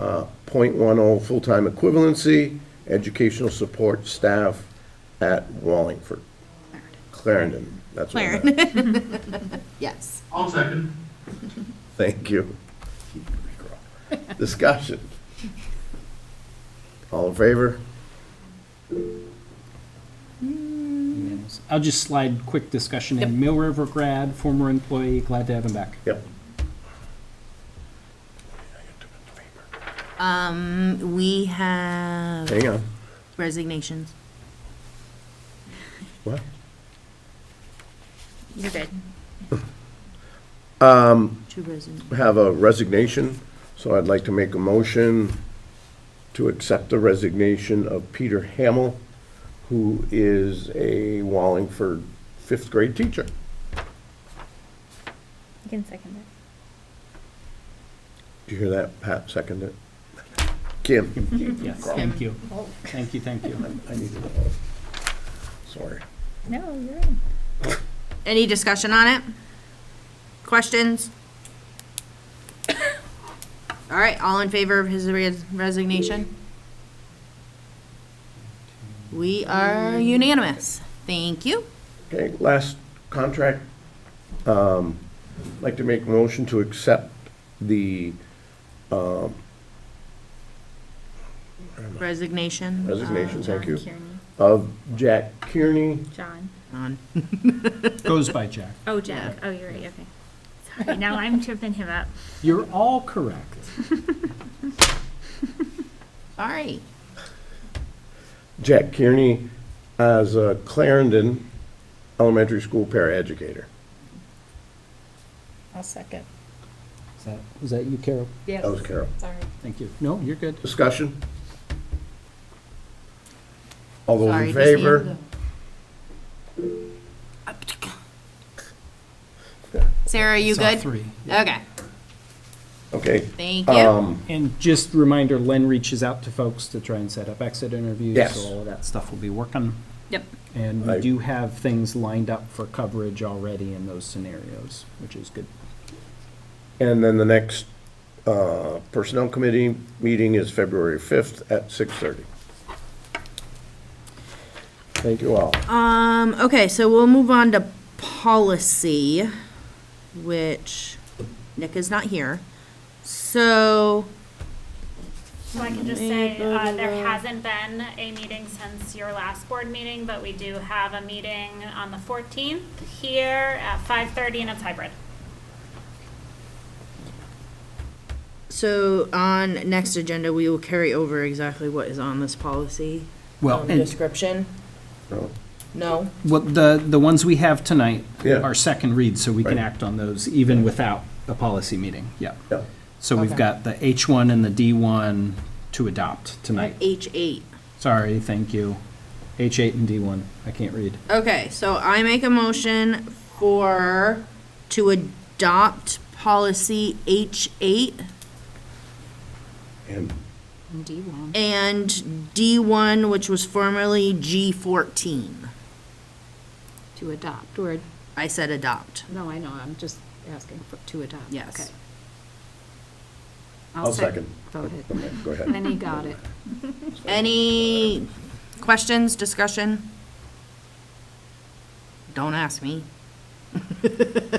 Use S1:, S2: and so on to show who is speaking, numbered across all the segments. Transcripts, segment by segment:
S1: uh, .10 full-time equivalency, educational support staff at Wallingford. Clarendon, that's what I meant.
S2: Yes.
S3: I'll second.
S1: Thank you. Discussion. All in favor?
S4: Unanimous. I'll just slide quick discussion in. Mill River grad, former employee, glad to have him back.
S1: Yep.
S2: Um, we have
S1: Hang on.
S2: resignations.
S1: What?
S2: You're good. Um. Two resign,
S1: Have a resignation, so I'd like to make a motion to accept the resignation of Peter Hamel, who is a Wallingford fifth grade teacher.
S5: You can second it.
S1: Do you hear that? Pat seconded it. Kim?
S4: Yes, thank you. Thank you, thank you.
S1: I needed a vote. Sorry.
S5: No, you're in.
S2: Any discussion on it? Questions? All right, all in favor of his res- resignation? We are unanimous. Thank you.
S1: Okay, last contract. Um, Like to make a motion to accept the
S2: Resignation.
S1: resignation, thank you,
S5: Uh, John Kearney.
S1: of Jack Kearney.
S5: John.
S2: On.
S4: Goes by Jack.
S5: Oh, Jack. Oh, you're right. Okay. Sorry. Now I'm tripping him up.
S4: You're all correct.
S2: All right.
S1: Jack Kearney as a Clarendon Elementary School paraeducator.
S5: I'll second.
S4: Is that, was that you, Carol?
S6: Yes.
S1: That was Carol.
S6: Sorry.
S4: Thank you. No, you're good.
S1: Discussion? All those
S2: Sorry,
S1: in
S2: just the end
S1: favor?
S2: of- Sarah, you
S4: Saw
S2: good?
S4: three.
S2: Okay,
S1: Okay.
S2: thank you.
S1: Um,
S4: And just reminder, Len reaches out to folks to try and set up exit interviews.
S1: Yes.
S4: So all of that stuff will be working.
S2: Yep.
S4: And
S1: I-
S4: we do have things lined up for coverage already in those scenarios, which is good.
S1: And then the next uh, Personnel Committee meeting is February 5th at 6:30. Thank you all.
S2: Um, okay, so we'll move on to policy, which Nick is not here. So,
S5: So I can just say, uh, there hasn't been a meeting since your last board meeting, but we do have a meeting on the fourteenth here at five thirty and it's hybrid.
S2: so on next agenda, we will carry over exactly what is on this policy.
S4: Well,
S2: um,
S4: and-
S2: Description?
S1: No.
S2: No?
S4: Well, the, the ones we have tonight
S1: Yeah.
S4: are second reads, so we can
S1: Right.
S4: act on those even without a policy meeting, yeah.
S1: Yeah.
S4: So we've
S2: Okay.
S4: got the H1 and the D1 to adopt tonight.
S2: H eight.
S4: Sorry, thank you. H8 and D1, I can't read.
S2: Okay, so I make a motion for, to adopt policy H eight
S1: And
S2: and D1, which was formerly G14.
S6: To adopt, or,
S2: I said adopt.
S6: no, I know, I'm just asking for, to adopt.
S2: Yes.
S6: Okay.
S1: I'll second.
S6: Go ahead.
S1: Okay, Go ahead.
S6: Lenny got it.
S2: Any questions, discussion? Don't ask me.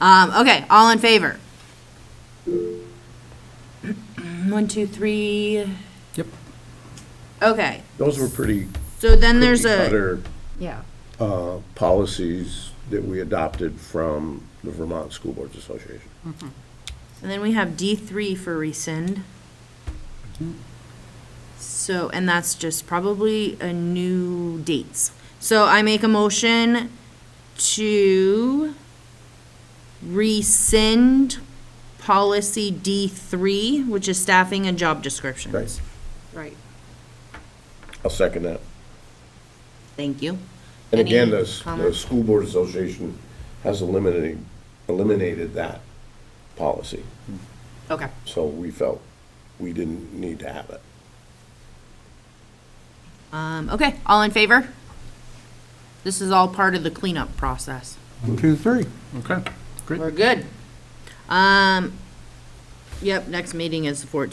S2: Um, okay, all in favor? One, two, three,
S4: Yep.
S2: okay.
S1: Those were pretty
S2: So then there's a,
S1: cookie-cutter
S6: Yeah.
S1: uh, policies that we adopted from the Vermont School Boards Association.
S2: and then we have D3 for rescind. So, and that's just probably a new dates. So I make a motion to rescind policy D3, which is staffing and job descriptions.
S1: Right.
S6: Right.
S1: I'll second that.
S2: Thank you.
S1: And again,
S2: Any
S1: the, s- the
S2: comment?
S1: School Board Association has eliminated, eliminated that policy.
S2: Okay.
S1: So we felt we didn't need to have it.
S2: Um, okay, all in favor? This is all part of the cleanup process.
S4: Okay, great.
S2: We're good. Um, yep, next meeting is the 14th.